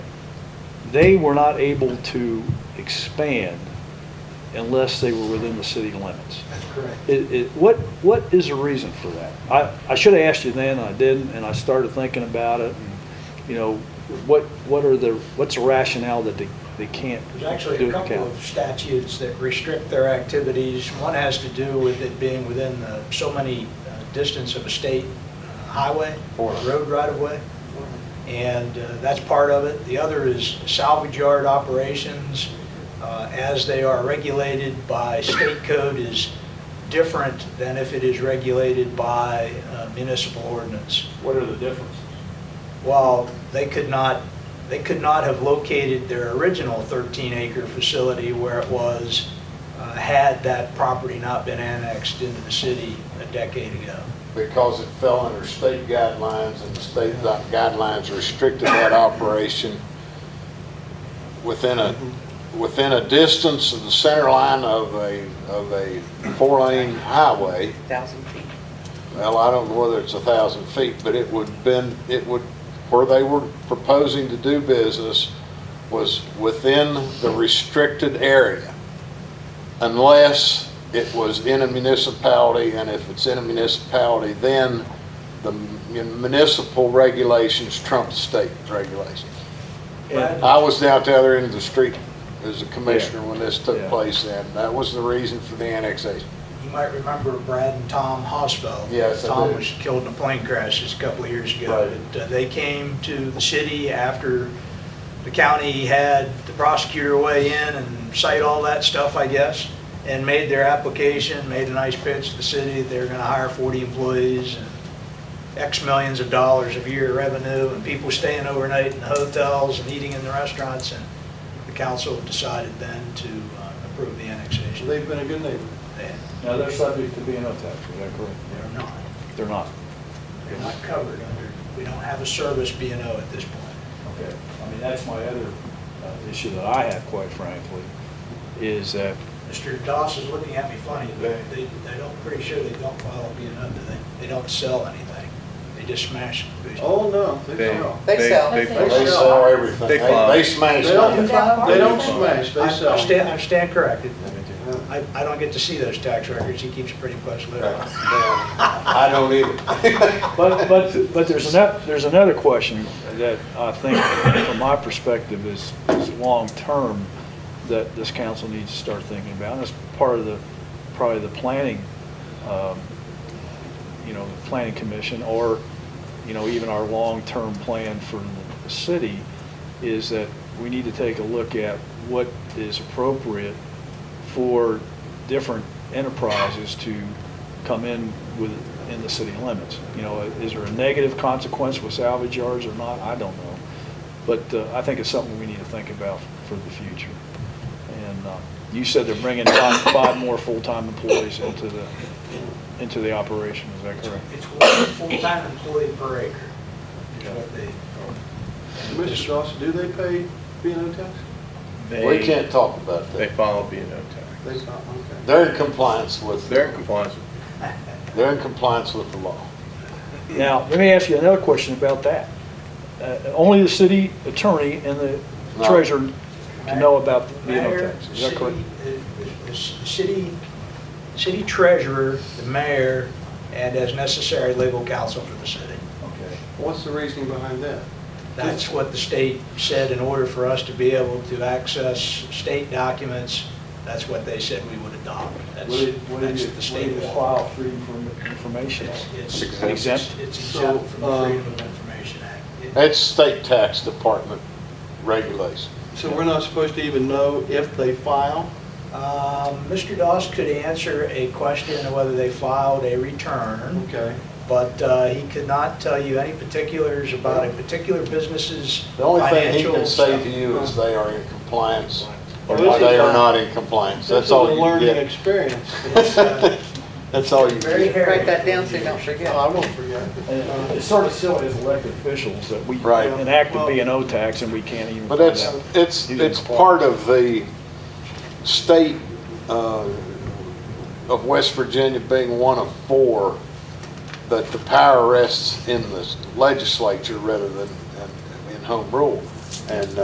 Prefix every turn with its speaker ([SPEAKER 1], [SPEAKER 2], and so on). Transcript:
[SPEAKER 1] they were not able to expand unless they were within the city limits.
[SPEAKER 2] That's correct.
[SPEAKER 1] It, it, what, what is the reason for that? I, I should have asked you then, I didn't, and I started thinking about it, and, you know, what, what are the, what's the rationale that they, they can't do
[SPEAKER 2] There's actually a
[SPEAKER 1] it
[SPEAKER 2] couple
[SPEAKER 1] count?
[SPEAKER 2] of statutes that restrict their activities. One has to do with it being within the- so many uh, distance of a state uh, highway, or road right-of-way, and uh, that's part of it. The other is salvage yard operations, uh, as they are regulated by state code, is different than if it is regulated by uh, municipal ordinance.
[SPEAKER 3] What are the differences?
[SPEAKER 2] Well, they could not, they could not have located their original 13-acre facility where it was, uh, had that property not been annexed into the city a decade ago.
[SPEAKER 4] because it fell under state guidelines, and the state guidelines restricted that operation within a, within a distance of the center line of a, of a four-lane highway.
[SPEAKER 5] thousand feet.
[SPEAKER 4] Well, I don't know whether it's a thousand feet, but it would been, it would, where they were proposing to do business was within the restricted area. Unless it was in a municipality, and if it's in a municipality, then the municipal regulations trump the state regulations.
[SPEAKER 1] And-
[SPEAKER 4] I was down at the other end of the street as a commissioner when this took
[SPEAKER 1] Yeah.
[SPEAKER 4] place, and that was the reason for the annexation.
[SPEAKER 2] You might remember Brad and Tom Hosfeld.
[SPEAKER 4] Yes, I
[SPEAKER 2] Tom
[SPEAKER 4] do.
[SPEAKER 2] was killed in a plane crash just a couple of years ago.
[SPEAKER 4] Right.
[SPEAKER 2] But, uh, They came to the city after the county had the prosecutor weigh in and cite all that stuff, I guess, and made their application, made a nice pitch to the city. They're going to hire 40 employees and X millions of dollars of year revenue and people staying overnight in the hotels and eating in the restaurants. And the council decided then to uh, approve the annexation. They
[SPEAKER 3] They've been a good neighbor.
[SPEAKER 1] Now, they're subject to being tax, is that correct?
[SPEAKER 2] they're not.
[SPEAKER 1] They're not.
[SPEAKER 2] They're not covered under, we don't have a service B and O at this point.
[SPEAKER 1] Okay, I mean, that's my other uh, issue that I have, quite frankly, is that
[SPEAKER 2] Mr. Doss is looking at me funny, but they, they don't, pretty sure they don't follow B and O, do they? They don't sell anything. They just smash. the-
[SPEAKER 3] Oh, no, they
[SPEAKER 6] They-
[SPEAKER 3] sell.
[SPEAKER 5] They sell.
[SPEAKER 6] They
[SPEAKER 4] They
[SPEAKER 6] sell.
[SPEAKER 4] sell everything.
[SPEAKER 6] They
[SPEAKER 4] They
[SPEAKER 6] fly.
[SPEAKER 4] they smash
[SPEAKER 3] They don't,
[SPEAKER 4] it.
[SPEAKER 3] they don't smash,
[SPEAKER 2] I-
[SPEAKER 3] they
[SPEAKER 2] I stand,
[SPEAKER 3] sell.
[SPEAKER 2] I stand corrected. I, I don't get to see those tax records. He keeps a pretty close lid on it.
[SPEAKER 4] I don't either.
[SPEAKER 1] But, but, but there's another, there's another question that I think, from my perspective, is, is long-term that this council needs to start thinking about. And it's part of the, probably the planning, um, you know, the planning commission, or, you know, even our long-term plan for the city, is that we need to take a look at what is appropriate for different enterprises to come in with, in the city limits. You know, is there a negative consequence with salvage yards or not? I don't know. But uh, I think it's something we need to think about for the future. And uh, you said they're bringing five, five more full-time employees into the, into the operation, is that correct?
[SPEAKER 2] It's one full-time employee per acre, is what they.
[SPEAKER 3] Mr. Dawson, do they pay B and O tax?
[SPEAKER 4] We can't talk about
[SPEAKER 6] They
[SPEAKER 4] that.
[SPEAKER 6] follow B and O
[SPEAKER 3] They,
[SPEAKER 6] tax.
[SPEAKER 3] okay.
[SPEAKER 4] They're in compliance with,
[SPEAKER 6] They're in compliance with
[SPEAKER 4] they're in compliance with the law.
[SPEAKER 1] Now, let me ask you another question about that. Uh, Only the city attorney and the
[SPEAKER 4] No.
[SPEAKER 1] treasurer can know about the
[SPEAKER 2] Mayor,
[SPEAKER 1] no tax, is that
[SPEAKER 2] city-
[SPEAKER 1] correct?
[SPEAKER 2] uh, the- the City, city treasurer, the mayor, and as necessary, legal counsel for the city.
[SPEAKER 1] Okay.
[SPEAKER 3] What's the reasoning behind that?
[SPEAKER 2] That's what the state said in order for us to be able to access state documents, that's what they said we would adopt. That's,
[SPEAKER 1] What did, what did
[SPEAKER 2] that's
[SPEAKER 1] you,
[SPEAKER 2] the
[SPEAKER 1] what
[SPEAKER 2] state
[SPEAKER 1] did you
[SPEAKER 2] law.
[SPEAKER 1] file for inform- information?
[SPEAKER 2] It's- It's
[SPEAKER 1] Exempt.
[SPEAKER 2] exempt, it's exempt from the
[SPEAKER 3] So, um,
[SPEAKER 2] Freedom of Information Act. It-
[SPEAKER 4] That's state tax department regulation.
[SPEAKER 3] So we're not supposed to even know if they file?
[SPEAKER 2] Um, Mr. Doss could answer a question of whether they filed a return.
[SPEAKER 3] Okay.
[SPEAKER 2] but uh, he could not tell you any particulars about a particular business's
[SPEAKER 4] The only thing he
[SPEAKER 2] financial
[SPEAKER 4] can say to
[SPEAKER 2] stuff.
[SPEAKER 4] you is they are in compliance, or
[SPEAKER 3] Well, this is
[SPEAKER 4] they
[SPEAKER 3] a-
[SPEAKER 4] are not in compliance. That's all
[SPEAKER 3] This is a
[SPEAKER 4] you
[SPEAKER 3] learning
[SPEAKER 4] can
[SPEAKER 3] experience.
[SPEAKER 4] get. That's all you
[SPEAKER 2] Very
[SPEAKER 4] get.
[SPEAKER 2] hairy.
[SPEAKER 5] Write that down so you don't forget.
[SPEAKER 3] No, I won't forget.
[SPEAKER 1] And Uh, It's sort of silly as elected officials that we
[SPEAKER 4] Right.
[SPEAKER 1] enact a B and O tax and we can't even
[SPEAKER 4] But
[SPEAKER 1] find
[SPEAKER 4] that's,
[SPEAKER 1] out.
[SPEAKER 4] it's,
[SPEAKER 1] You didn't
[SPEAKER 4] it's
[SPEAKER 1] apply.
[SPEAKER 4] part of the state uh, of West Virginia being one of four, that the power rests in the legislature rather than in- in home rule. And uh,